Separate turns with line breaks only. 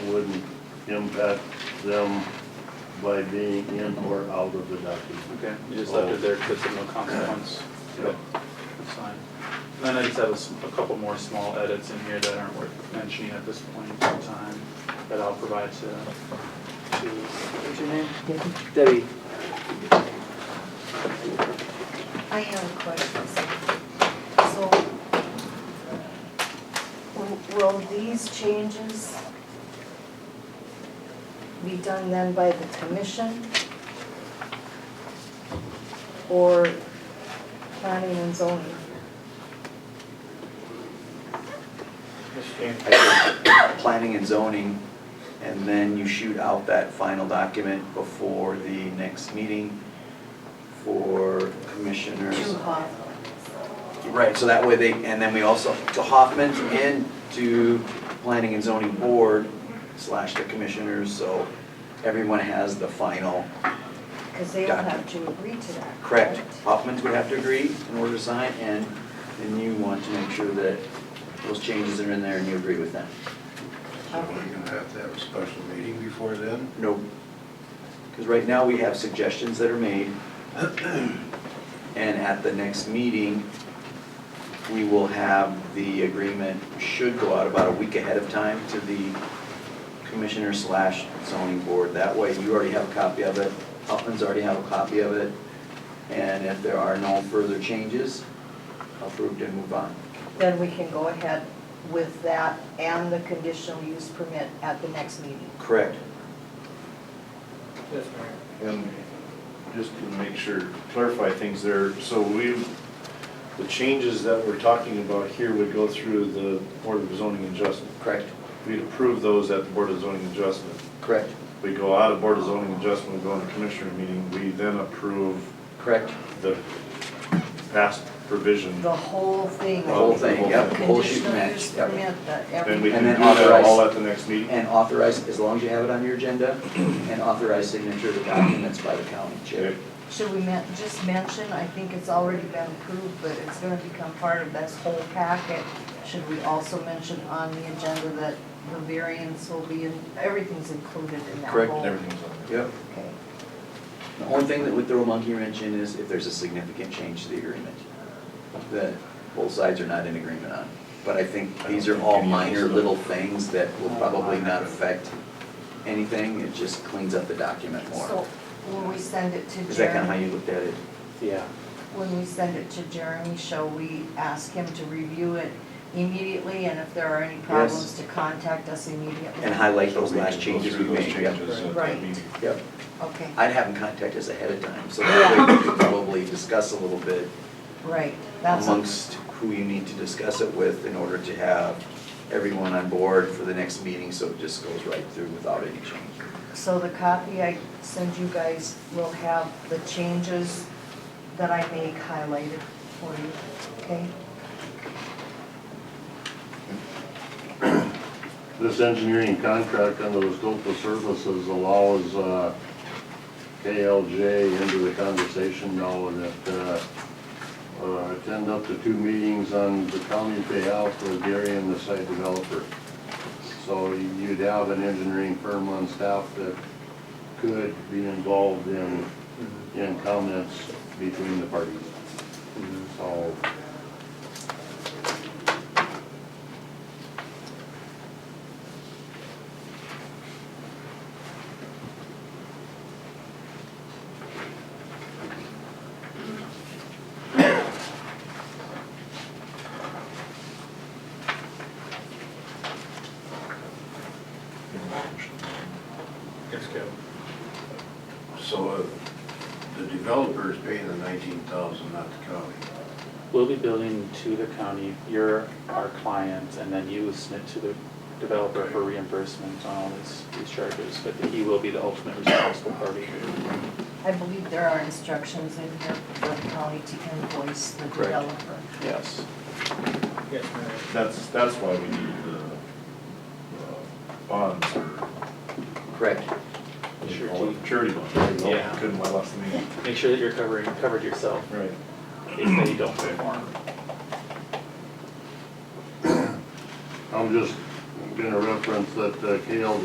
impact them by being in or out of the document.
Okay, you just left it there because of no consequence.
Yep.
That's fine. And then I just have a s- a couple more small edits in here that aren't worth mentioning at this point in time that I'll provide to, to, what's your name? Debbie.
I have a question. So, w- will these changes be done then by the commission? Or planning and zoning?
I think Planning and zoning, and then you shoot out that final document before the next meeting for commissioners.
To Hoff.
Right, so that way they, and then we also, to Hoffman's and to planning and zoning board slash the commissioners, so everyone has the final,
Because they all have to agree to that.
correct? Hoffman's would have to agree in order to sign, and then you want to make sure that those changes are in there and you agree with them.
So are you gonna have to have a special meeting before then?
No. Because right now, we have suggestions that are made, and at the next meeting, we will have the agreement, should go out about a week ahead of time to the commissioner slash zoning board. That way, you already have a copy of it, Uplands already have a copy of it, and if there are no further changes, approved and move on.
Then we can go ahead with that and the conditional use permit at the next meeting.
Correct.
Yes, Mayor.
And just to make sure, clarify things there, so we, the changes that we're talking about here would go through the Board of Zoning Adjustment.
Correct.
We'd approve those at the Board of Zoning Adjustment.
Correct.
We go out of Board of Zoning Adjustment, we go into Commissioner meeting, we then approve
Correct.
the past provision.
The whole thing.
The whole thing, yep, the whole shoot
Conditional
match.
use
yep.
permit, the
And
everything.
we
And
can do
then
that
authorize-
all at the next meeting.
And authorize, as long as you have it on your agenda, and authorize signature of the documents by the county chair.
Okay.
Should we men- just mention, I think it's already been approved, but it's gonna become part of this whole packet. Should we also mention on the agenda that the variance will be, in everything's included in that whole?
Correct,
Everything's on there.
Yep.
Okay.
The only thing that would throw a monkey wrench in is if there's a significant change to the agreement that both sides are not in agreement on. But I think these are all minor little things that will probably not affect anything. It just cleans up the document more.
So when we send it to
Is that kind of how
Jeremy,
you looked at it?
Yeah.
when we send it to Jeremy, shall we ask him to review it immediately? And if there are any problems, to contact us immediately?
And highlight
So
those
we can
last
go
changes we
through those
made. Yep.
changes
uh,
at that
Right.
meeting.
Yep.
Okay,
I'd have them contact us ahead of time, so that way we could probably discuss a little bit
right, that's.
amongst who you need to discuss it with in order to have everyone on board for the next meeting, so it just goes right through without any change.
So the copy I send you guys will have the changes that I make highlighted for you, okay?
This engineering contract under the scope of services allows uh, KLJ into the conversation now that uh, uh, attend up to two meetings on the county payout for Gary and the site developer. So you'd have an engineering firm on staff that could be involved in, in comments between the parties. So
Yes, Kevin.
So uh, the developer is paying the nineteen thousand, not the county.
We'll be billing to the county, you're our client, and then you submit to the developer for reimbursement on all these, these charges, but he will be the ultimate responsible party.
I believe there are instructions in here for the county to invoice the
Correct.
developer.
Yes.
Yes, Mayor.
That's, that's why we need the uh, bonds or
Correct.
Surety.
Charity bonds.
Yeah.
Couldn't let us name.
Make sure that you're covering, covered yourself
Right.
if they don't pay more.
I'm just gonna reference that uh, KLJ